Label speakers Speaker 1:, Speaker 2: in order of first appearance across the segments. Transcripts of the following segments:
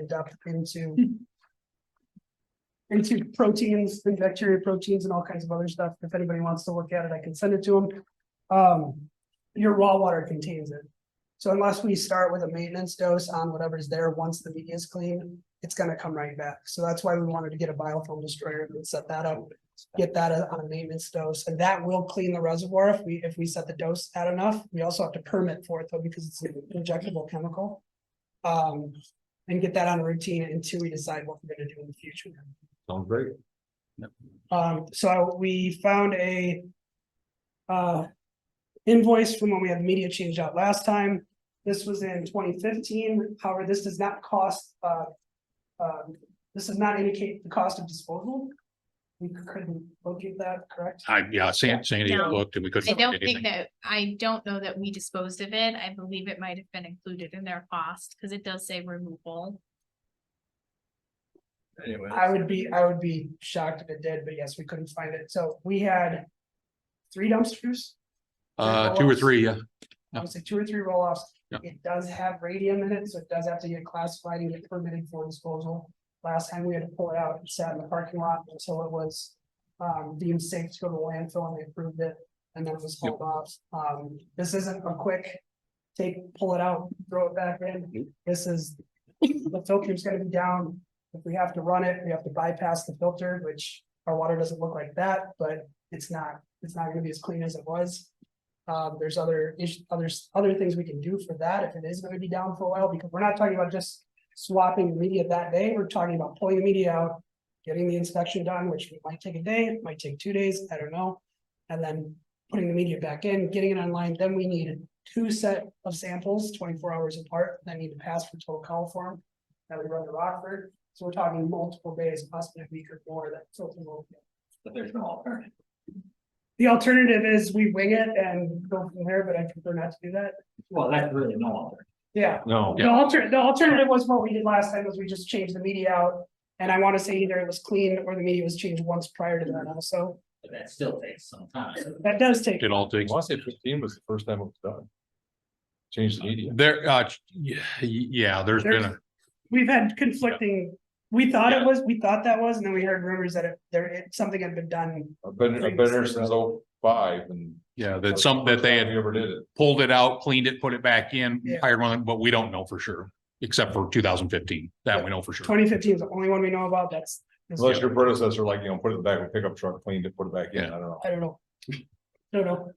Speaker 1: it up into into proteins and bacteria proteins and all kinds of other stuff. If anybody wants to look at it, I can send it to them. Um, your raw water contains it. So unless we start with a maintenance dose on whatever's there, once the media is clean, it's gonna come right back. So that's why we wanted to get a biofilm destroyer and set that up. Get that uh, on a maintenance dose, and that will clean the reservoir if we, if we set the dose at enough. We also have to permit for it though, because it's an injectable chemical. Um, and get that on a routine until we decide what we're gonna do in the future.
Speaker 2: Sounds great.
Speaker 1: Um, so we found a. Uh. Invoice from when we had media change out last time. This was in twenty fifteen. However, this does not cost, uh. Um, this does not indicate the cost of disposal. We couldn't locate that, correct?
Speaker 3: I, yeah, San- Sandy
Speaker 4: No.
Speaker 3: looked and we couldn't.
Speaker 4: I
Speaker 3: find
Speaker 4: don't think
Speaker 3: anything.
Speaker 4: that, I don't know that we disposed of it. I believe it might have been included in their cost, because it does say removal.
Speaker 5: Anyway,
Speaker 1: I would be, I would be shocked if it did, but yes, we couldn't find it. So we had. Three dumpsters.
Speaker 3: Uh, two or three, yeah.
Speaker 1: I would say two or three roll offs.
Speaker 3: Yeah.
Speaker 1: It does have radium in it, so it does have to get classified and get permitted for disposal. Last time we had to pull it out, it sat in the parking lot until it was um deemed safe to go to landfill and they approved it. And then it was hauled off. Um, this isn't a quick take, pull it out, throw it back
Speaker 3: Mm-hmm.
Speaker 1: in. This is, the filter's gonna be down. If we have to run it, we have to bypass the filter, which our water doesn't look like that, but it's not, it's not gonna be as clean as it was. Um, there's other issues, others, other things we can do for that if it is gonna be down for a while, because we're not talking about just swapping the media that day, we're talking about pulling the media out, getting the inspection done, which might take a day, might take two days, I don't know. And then putting the media back in, getting it online, then we need two set of samples, twenty-four hours apart, that need to pass for total coliform that we run to Rockford, so we're talking multiple days, possibly a week or more, that filter will
Speaker 5: but there's no alternative.
Speaker 1: the alternative is we wing it and go from there, but I prefer not to do that.
Speaker 5: Well, that's really no alternative.
Speaker 1: Yeah,
Speaker 2: No.
Speaker 1: the alter, the alternative was what we did last time was we just changed the media out. And I want to say either it was clean or the media was changed once prior to that also.
Speaker 5: But that still takes some time.
Speaker 1: That does take,
Speaker 3: It all takes,
Speaker 2: say fifteen was the first time it was done. Changed the media.
Speaker 3: there, uh, yeah, yeah, there's been a,
Speaker 1: we've had conflicting, we thought it was, we thought that was, and then we heard rumors that it, there, it, something had been done.
Speaker 2: I've been, I've been there since oh five and.
Speaker 3: yeah, that some, that they had
Speaker 2: Ever did it.
Speaker 3: pulled it out, cleaned it, put it back in,
Speaker 1: Yeah.
Speaker 3: hired one, but we don't know for sure. Except for two thousand fifteen, that we know for sure.
Speaker 1: Twenty fifteen is the only one we know about. That's,
Speaker 2: Unless your predecessor, like, you know, put it in the back of a pickup truck, cleaned it, put it back in, I don't know.
Speaker 1: I don't know. Don't know.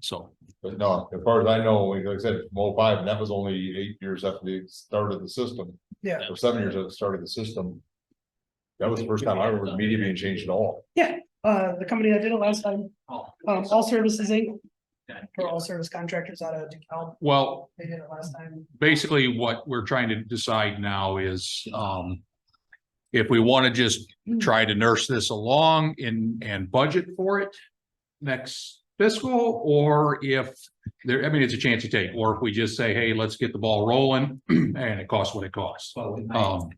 Speaker 3: So,
Speaker 2: But no, as far as I know, like I said, from oh five, and that was only eight years after they started the system.
Speaker 1: Yeah.
Speaker 2: Or seven years after they started the system. That was the first time I remember the media being changed at all.
Speaker 1: Uh, the company that did it last time,
Speaker 5: Oh,
Speaker 1: um, All Services Inc.,
Speaker 5: God,
Speaker 1: or All Service Contractors out of DeKalb,
Speaker 3: well,
Speaker 1: they did it last time.
Speaker 3: basically what we're trying to decide now is, um. If we want to just try to nurse this along and, and budget for it next fiscal, or if. There, I mean, it's a chance you take, or if we just say, hey, let's get the ball rolling and it costs what it costs.
Speaker 5: Well, we might,
Speaker 3: Um,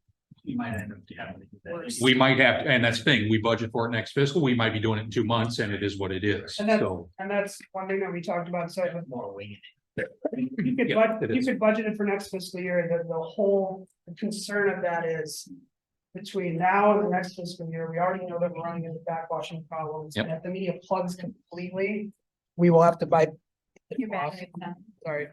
Speaker 5: we might end up having to do that.
Speaker 3: we might have, and that's the thing, we budget for it next fiscal, we might be doing it in two months and it is what it is,
Speaker 1: And that's-
Speaker 3: so.
Speaker 1: And that's one thing that we talked about, so
Speaker 5: More winging
Speaker 1: you could
Speaker 3: Yeah,
Speaker 1: bud
Speaker 3: it
Speaker 1: you
Speaker 3: is.
Speaker 1: could budget it for next fiscal year, the, the whole concern of that is. Between now and the next fiscal year, we already know that we're running into backwashing problems,
Speaker 3: Yep.
Speaker 1: and if the media plugs completely. We will have to buy.
Speaker 4: You're back.
Speaker 1: Sorry.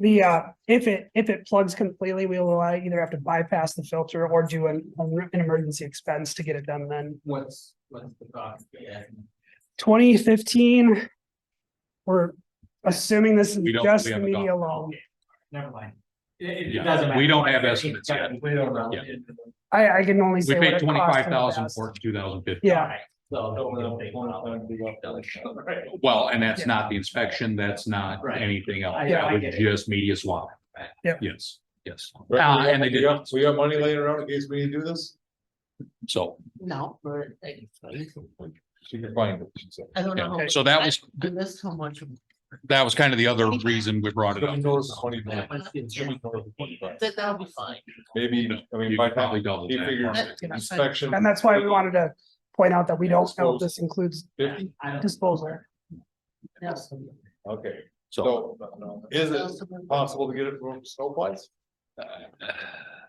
Speaker 1: The, uh, if it, if it plugs completely, we will uh, either have to bypass the filter or do an, an emergency expense to get it done then.
Speaker 5: it. What's, what's the thought? Yeah.
Speaker 1: Twenty fifteen. We're assuming this is
Speaker 3: We don't- we
Speaker 1: just the
Speaker 3: haven't gone-
Speaker 1: media alone.
Speaker 5: Never mind. It- It, it
Speaker 3: Yeah,
Speaker 5: doesn't matter.
Speaker 3: we don't have estimates yet.
Speaker 5: We don't know.
Speaker 3: Yeah.
Speaker 1: I, I can only
Speaker 3: We
Speaker 1: say.
Speaker 3: paid
Speaker 1: what it cost in the
Speaker 3: twenty-five thousand
Speaker 1: past.
Speaker 3: for it in two thousand fifteen.
Speaker 1: Yeah,
Speaker 5: Alright, So don't really take one out. Right.
Speaker 3: Well, and that's
Speaker 1: Yeah.
Speaker 3: not the inspection, that's not
Speaker 5: Right.
Speaker 3: anything else,
Speaker 5: I-
Speaker 3: that
Speaker 5: I
Speaker 3: was
Speaker 5: get it.
Speaker 3: just media swap.
Speaker 5: Right.
Speaker 1: Yep.
Speaker 3: Yes, yes,
Speaker 2: Right,
Speaker 3: Ah,
Speaker 2: we have-
Speaker 3: and they
Speaker 2: we
Speaker 3: did.
Speaker 2: have- So we have money laying around in case we need to do this?
Speaker 3: so,
Speaker 6: No, for, I
Speaker 2: She can find it, she said.
Speaker 6: don't know. how
Speaker 3: yeah.
Speaker 6: much-
Speaker 3: so that was,
Speaker 6: I missed how much. of
Speaker 3: that was kind of the other reason we brought it
Speaker 2: Let
Speaker 3: up.
Speaker 2: me know this is 20
Speaker 6: that was. Yeah,
Speaker 2: bucks.
Speaker 6: That, that'll be fine.
Speaker 2: Maybe, I mean,
Speaker 3: You
Speaker 2: by
Speaker 3: could
Speaker 2: probably
Speaker 3: probably double
Speaker 2: he
Speaker 3: that.
Speaker 2: figures
Speaker 6: That- yeah, I-
Speaker 2: inspection.
Speaker 1: and that's why we wanted to point out that we don't know if this includes
Speaker 2: Fifty,
Speaker 5: I don't-
Speaker 1: disposal.
Speaker 6: Yes.
Speaker 2: okay,
Speaker 3: So,
Speaker 2: so is it possible to get it from Snowflakes?
Speaker 3: uh,